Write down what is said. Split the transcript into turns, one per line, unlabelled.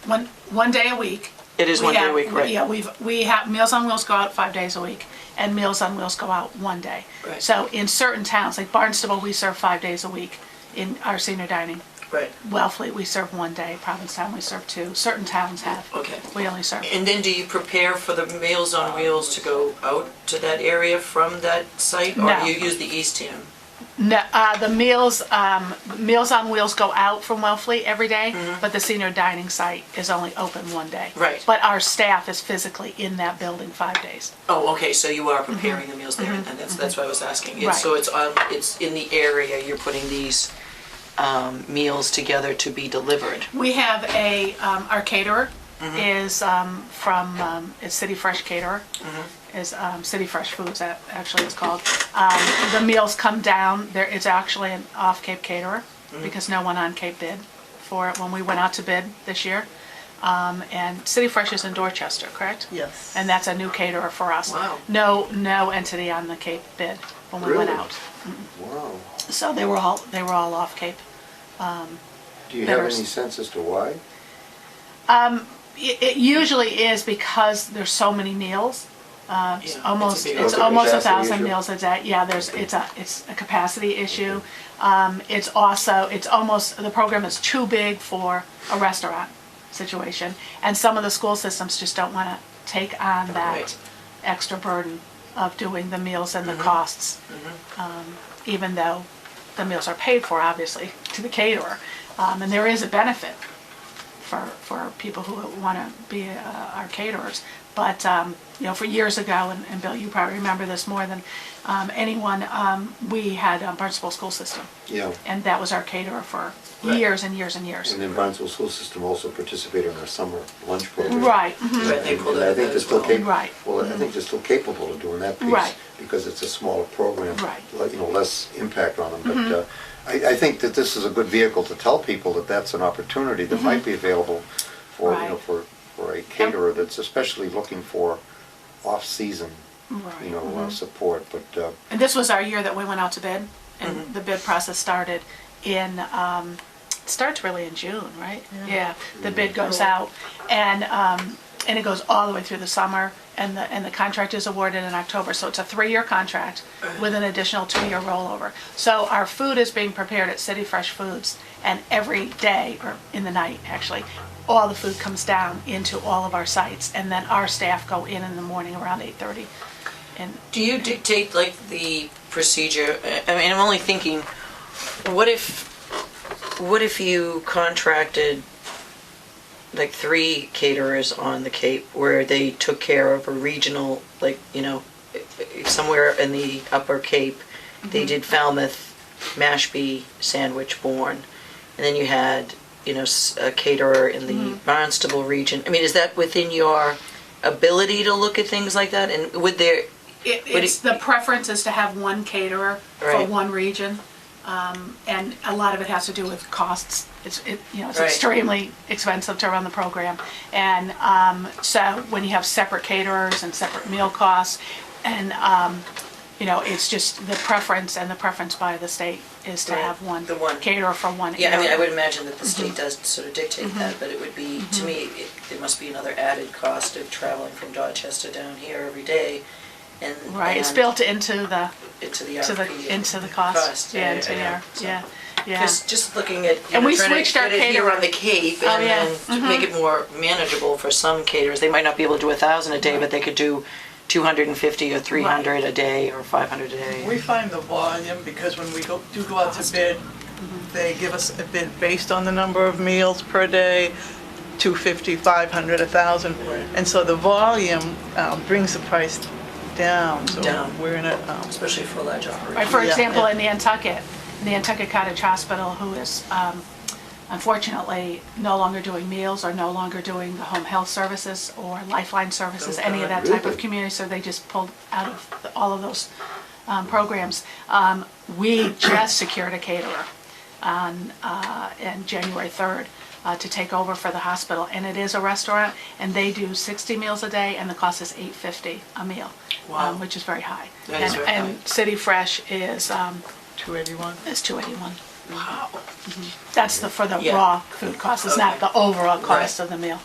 one, one day a week.
It is
We
one day a
have-
week, right.
Yeah, we've, we have, Meals on Wheels go out five days a week, and Meals on Wheels go out one day.
Right.
So in certain towns, like Barnstable, we serve five days a week in our senior dining.
Right.
Wellfleet, we serve one day, Provincetown, we serve two, certain towns have.
Okay.
We only serve.
And then do you prepare for the Meals on Wheels to go out to that area from that site?
No.
Or you use the East Ham?
No, uh, the meals, um, Meals on Wheels go out from Wellfleet every day, but the senior dining site is only open one day.
Mm-hmm. Right.
But our staff is physically in that building five days.
Oh, okay, so you are preparing the meals there, and that's, that's why I was asking. It's-
Mm-hmm. Right.
So it's on, it's in the area, you're putting these um, meals together to be delivered.
We have a, um, our caterer is, um, from, um, is City Fresh Caterer. Is, um, City Fresh Foods, that actually it's called. Um, the meals come down, there is actually an off-Cape caterer, because no one on Cape bid for it when we went out to bid this year. Um, and City Fresh is in Dorchester, correct?
Yes.
And that's a new caterer for us.
Wow.
No, no entity on the Cape bid when we went
Really?
out.
Wow.
So they were all, they were all off Cape.
Do you have
Better s-
any sense as to why?
It, it usually is because there's so many meals. Uh, it's
Yeah, it's a
almost,
big-
it's
It's a
almost a
capacity
thousand
issue.
meals a day. Yeah, there's, it's a, it's a capacity issue. Um, it's also, it's almost, the program is too big for a restaurant situation. And some of the school systems just don't want to take on that
Right.
extra burden of doing the meals and the
Mm-hmm.
costs. Um, Even though the meals are paid for, obviously, to the caterer. Um, And there is a benefit for, for people who want to be uh, our caterers. But, um, you know, for years ago, and, and Bill, you probably remember this more than um, anyone, um, we had um, Barnstable School System,
Yeah.
and that was our caterer for
Right.
years and years and years.
And then Barnstable School System also participated in our summer lunch program.
Right, mhm,
And-
Right, they pulled
and I
out
think
that
they're
as
still
well.
capable.
Right.
Well, I think they're still capable of doing that piece.
Right.
Because it's a smaller program.
Right. Mm-hmm.
like, You know, less impact on them. But uh, I, I think that this is a good vehicle to tell people that that's an opportunity that might be available for, you know,
Mm-hmm. Right.
for, for a caterer that's especially looking for off-season,
Right, mm-hmm.
you know, uh, support. But uh,
And this was our year that we went out to bid, and the bid process started in, um, it starts really in June, right? Yeah. the bid goes out, and um, and it goes all the way through the summer, and the and the contract is awarded in October. So it's a three-year contract with an additional two-year rollover. So our food is being prepared at City Fresh Foods, and every day or in the night actually. All the food comes down into all of our sites, and then our staff go in in the morning around 8:30, and
Do you dictate like the procedure? I I mean, I'm only thinking, what if, what if you contracted like three caterers on the Cape where they took care of a regional, like, you know, i- i- somewhere in the Upper Cape, they did Falmouth, Mashpee, Sandwich, Bourne, and then you had, you know, s- a caterer in the Barnstable region. I mean, is that within your ability to look at things like that? And would there,
It,
Would
it's,
it-
the preference is to have one caterer for
Right.
one region. Um, and a lot of it has to do with costs. It's, it, you know, it's
Right.
extremely expensive to run the program. And, um, so when you have separate caterers and separate meal costs and, um, you know, it's just the preference and the preference by the state is to
Right.
have one
The one.
caterer for one
Yeah, I mean, I
area.
would imagine that the
Mm-hmm.
state does sort of dictate that, but it would be, to me, it- there must be another added cost of traveling from Dorchester down here every day and.
Right, it's
and
built into the,
Into the
to
RFP.
the, into the cost. Yeah, into
yeah.
your, yeah, yeah.
Because just looking at, you
And
know,
we
trying to
switched our Oh,
get it here on the Cape and
yeah. Mm-hmm.
then to make it more manageable for some caterers. They might not be able to do a thousand a day, but they could do two hundred and fifty or three hundred a day or five hundred a
We
day.
find the volume, because when we go, do go out to bid, they give us a bid based on the number of meals per day, 250, 500, 1,000. And so the volume um, brings the price down. So
Down.
We're in a, um,
Especially for large
Right,
operations.
for
Yeah,
example,
yeah.
in Nantucket, Nantucket Cottage Hospital, who is um, unfortunately no longer doing meals or no longer doing the home health services or lifeline services, any of that type of
Really?
community, so they just pulled out of the- all of those um, programs. Um, We just secured a caterer on, uh, in January 3rd uh, to take over for the hospital, and it is a restaurant, and they do 60 meals a day, and the cost is 850 a meal, um,
Wow.
which is very high.
That is
And-
very high.
And City Fresh is, um,
281.
is two eighty-one.
Wow.
That's the, for the
Mm-hmm. Yeah.
raw food cost, it's not
Okay.
the overall cost
Right.
of the meal.